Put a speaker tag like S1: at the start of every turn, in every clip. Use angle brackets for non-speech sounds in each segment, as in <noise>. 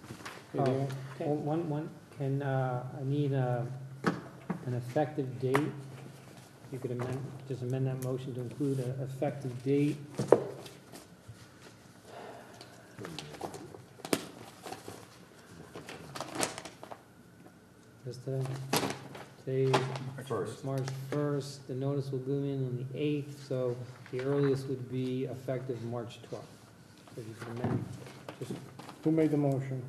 S1: Oh,
S2: Maybe
S1: okay. One, one- one, can, uh, I need a, an effective date? If You could amend, just amend that motion to include an effective date. Just to say
S3: First.
S1: March first, the notice will go in on the eighth, so the earliest would be effective March twelfth. So if you can amend, just,
S2: Who made the motion?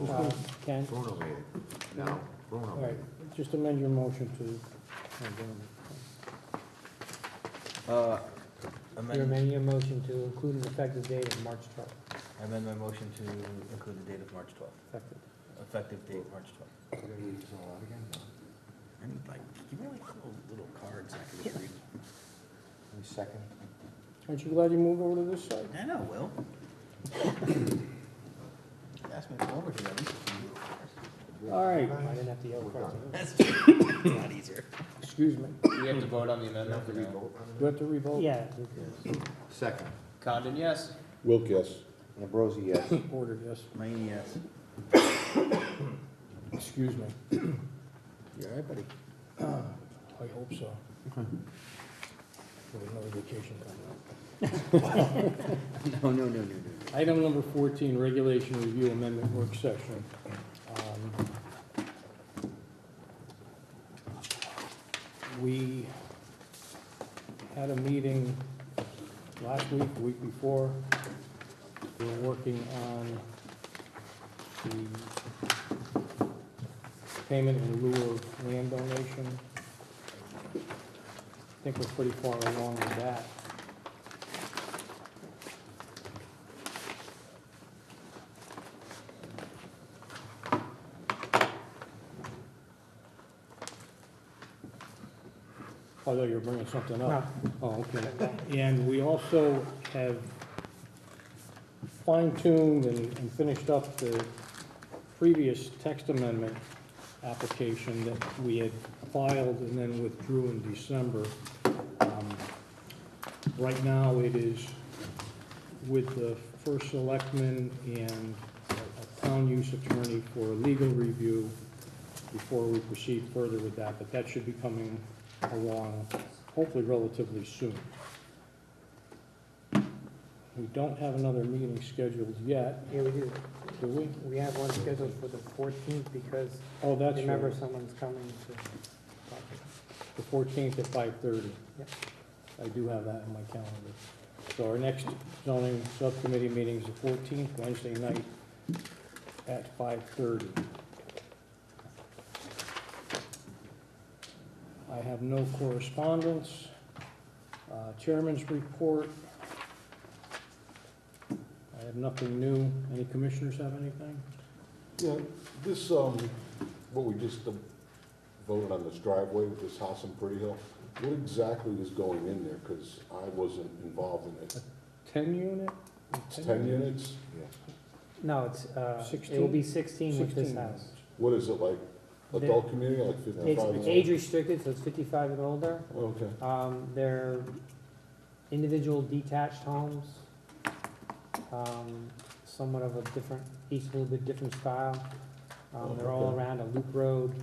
S1: uh,
S3: Bruno
S1: Ken?
S3: Bruno made it. No, Bruno
S2: All
S3: made
S2: right,
S3: it.
S2: just amend your motion to,
S1: Oh, Bruno.
S4: Uh,
S1: You're
S4: Amend,
S1: amending your motion to include an effective date of March 12th.
S4: amend my motion to include the date of March 12th,
S1: Effective.
S4: effective date, March 12th.
S3: We're gonna read this all out again?
S4: I need like, give me like little, little cards I can just read.
S3: Any second?
S2: aren't you glad you moved over to this side?
S4: I know, Will. <coughs> Ask me to come over here, at least a few little cards.
S2: All right,
S1: I didn't have to yell for it.
S4: That's true. a lot easier.
S2: excuse me,
S5: We have to vote on the amendment.
S3: Have to
S5: or no?
S3: re-vote on
S2: do I have to revoke?
S1: Yeah.
S3: it? Second.
S5: Condon, yes.
S6: Wilk, yes.
S3: Ambrosi, yes.
S2: Order, yes,
S4: Mayne, yes.
S2: excuse me,
S3: You all right, buddy?
S2: <clears throat> I hope so. There was another vacation coming up.
S4: No, no, no, no, no.
S2: Item number fourteen, regulation review amendment work session. Um, We had a meeting last week, the week before. We were working on the payment in lieu of land donation. I think we're pretty far along with that. Oh, Although you're bringing something up. Oh, okay. And we also have fine-tuned and and finished up the previous text amendment application that we had filed and then withdrew in December. Um, Right now, it is with the first selectman and a town use attorney for legal review before we proceed further with that, but that should be coming along hopefully relatively soon. We don't have another meeting scheduled yet,
S1: Here we do.
S2: do we?
S1: We have one scheduled for the 14th because
S2: Oh, that's
S1: remember
S2: right,
S1: someone's coming to talk.
S2: the fourteenth at five thirty.
S1: Yep.
S2: I do have that in my calendar. So our next zoning subcommittee meeting is the fourteenth, Wednesday night at five thirty. I have no correspondence. Uh, Chairman's report. I have nothing new. Any commissioners have anything?
S6: Yeah, this, um, what we just um, voted on this driveway with this house in Pretty Hill, what exactly is going in there? Because I wasn't involved in it.
S2: Ten unit?
S6: It's ten units?
S1: No, it's, uh, it
S2: 16?
S1: will be 16 with this
S2: Sixteen
S1: house.
S2: units.
S6: What is it, like adult community, like
S1: It's
S6: fifty-five? and
S1: age
S6: older?
S1: restricted, so it's 55 and older.
S6: Okay,
S1: Um, They're individual detached homes, um, somewhat of a different, each a little bit different style. Um, They're all
S6: Okay.
S1: around a loop road,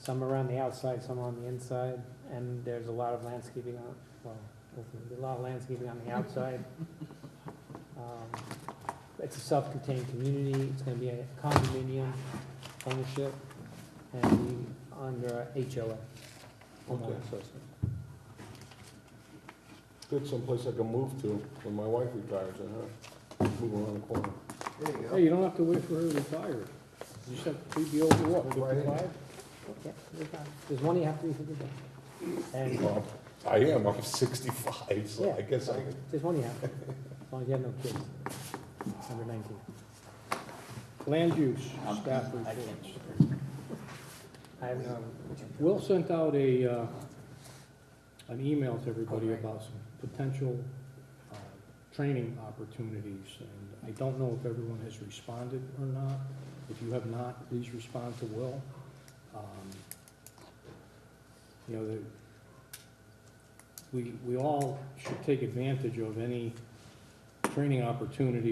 S1: some around the outside, some on the inside, and there's a lot of landscaping on, well, ultimately, a lot of landscaping on the outside. Um, It's a self-contained community, it's gonna be a condominium ownership, and be under a HOA. homeowner
S6: Okay.
S1: association.
S6: good, someplace I can move to when my wife retires, I have, move around the corner.
S3: There you go.
S2: Hey, you don't have to wait for her to retire. You just have to be over what,
S3: Right in.
S2: fifty-five?
S1: Yeah, you're fine. There's one you have to be for the day. And
S6: Well, I am, I'm sixty-five, so
S1: Yeah.
S6: I guess I could.
S1: there's one you have, to, as long as you have no kids, under 19.
S2: Land use,
S4: I'm-
S2: staff
S4: I
S2: reports.
S4: can't.
S1: I have um, no,
S2: Will sent out a, uh, an email to everybody about some potential uh, training opportunities, and I don't know if everyone has responded or not. If you have not, please respond to Will. Um, You know, the, we, we all should take advantage of any training opportunity